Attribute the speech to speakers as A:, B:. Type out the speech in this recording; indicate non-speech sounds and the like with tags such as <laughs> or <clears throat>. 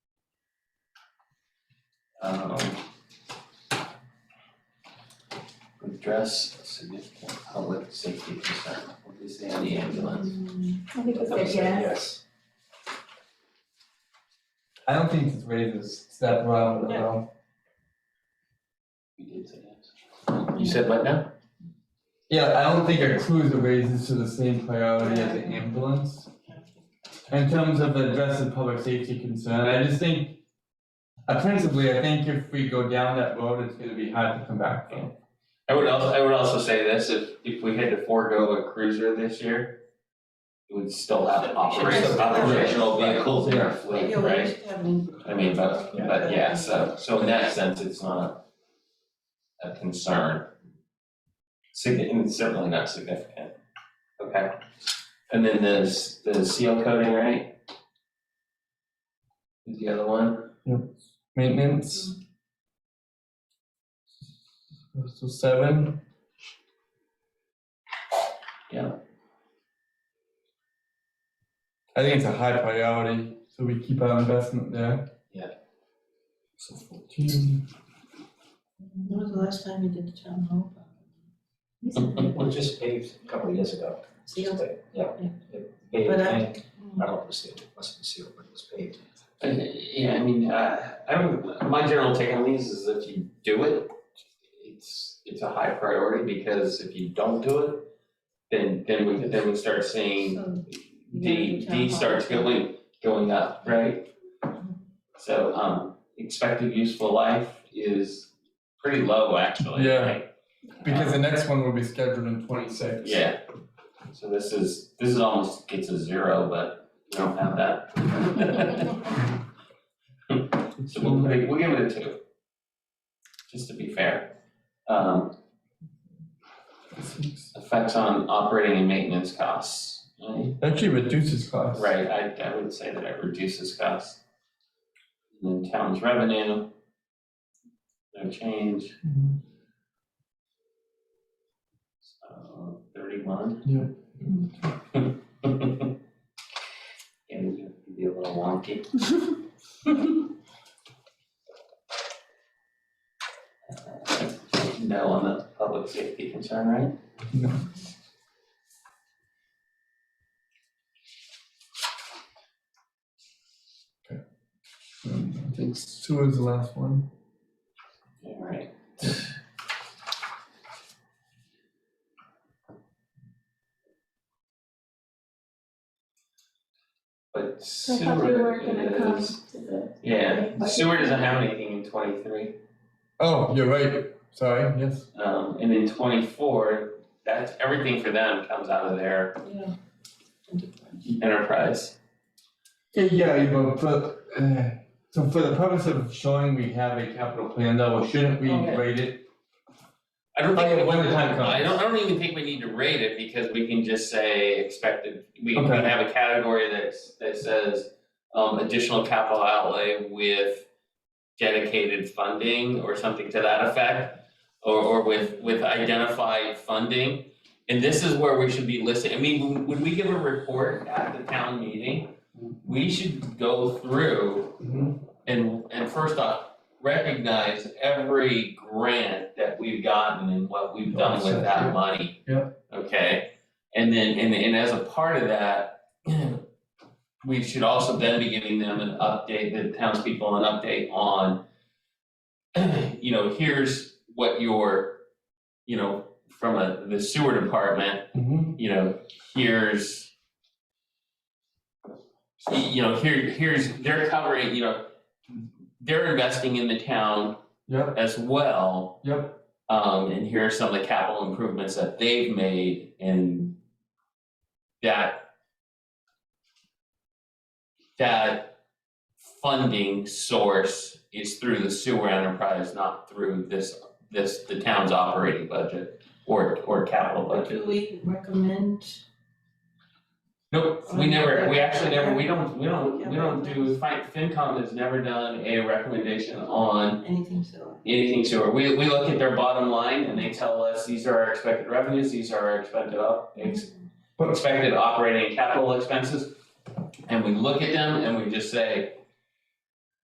A: um, address a significant public safety concern, what do we say on the ambulance?
B: I think it's a
A: Yes.
B: yes.
C: I don't think it raises that round at
B: No.
C: all.
A: We did say yes. You said what now?
C: Yeah, I don't think a cruiser raises to the same priority as an ambulance. In terms of addressing public safety concern, I just think, uh, principally, I think if we go down that road, it's gonna be hard to come back from.
D: I would also, I would also say this, if, if we had to forego a cruiser this year, we would still have operational, operational vehicles in our fleet, right? I mean, but, but yeah, so, so in that sense, it's not a concern. Significant, it's certainly not significant, okay? And then there's the seal coating, right? Is the other one,
C: Maintenance. So seven,
A: Yeah.
C: I think it's a high priority, so we keep our investment there.
A: Yeah.
C: So fourteen.
B: When was the last time you did the town hall?
E: We just paved a couple of years ago.
B: Sealed.
E: Yeah.
B: Yeah.
E: It Paved,
B: But I-
E: and, I don't know if it was sealed, it must have been sealed, but it was paved.
D: Uh, Yeah, I mean, uh, I don't, my general take on these is if you do it, it's, it's a high priority, because if you don't do it, then, then we, then we start seeing
B: So,
D: D, D starts going, going up, right? So, um, expected useful life is pretty low, actually,
C: Yeah.
D: right?
C: Because the next one will be scheduled in twenty-six.
D: Yeah, so this is, this is almost gets a zero, but we don't have that. So we'll put it, we'll give it a two, just to be fair. Um, effects on operating and maintenance costs, right?
C: <laughs> Actually reduces costs.
D: Right, I, I would say that it reduces costs. And then town's revenue, no change,
C: Mhm.
D: so Uh, thirty-one.
C: Yeah.
D: <laughs> And it can be a little
B: <laughs>
D: wonky. No on the public safety concern, right?
C: No. Um, I think two is the last one.
D: All right. But
B: I thought we
D: sewer
B: were gonna come
D: is,
B: to the,
D: yeah, sewer doesn't have anything in twenty-three.
C: Oh, you're right, sorry, yes.
D: Um, and in twenty-four, that's, everything for them comes out of their
B: <laughs> yeah.
D: enterprise.
C: Yeah, yeah, you know, but, uh, so for the purpose of showing we have a capital plan though, shouldn't we
D: Okay.
C: rate it?
D: I don't
C: Okay,
D: think,
C: Oh, when the time
D: I don't, I
C: comes.
D: don't even think we need to rate it because we can just say expected, we we
C: Okay.
D: have a category that's, that says um, additional capital outlay with dedicated funding or something to that effect, or, or with, with identified funding. And this is where we should be listing, I mean, when- when we give a report at the town meeting, we should go through
C: Mm-hmm.
D: and, and first off, recognize every grant that we've gotten and what we've done with that money.
C: Yeah.
D: Okay, and then, and, and as a part of that, <clears throat> we should also then be giving them an update, the townspeople an update on, <clears throat> you know, here's what your, you know, from a, the sewer department,
C: Mhm.
D: you know, here's you know, here here's they're covering, you know, they're investing in the town
C: Yep,
D: as well.
C: yep,
D: Um, and here are some of the capital improvements that they've made and that that funding source is through the sewer enterprise, not through this this the town's operating budget or or capital budget.
B: Do we recommend,
D: Nope, we never, we actually never, we don't, we don't, we don't do, Fin- FinCom has never done a recommendation on
B: anything so?
D: anything sewer. We, we look at their bottom line and they tell us, these are our expected revenues, these are our expected op, ex- expected operating and capital expenses. And we look at them and we just say,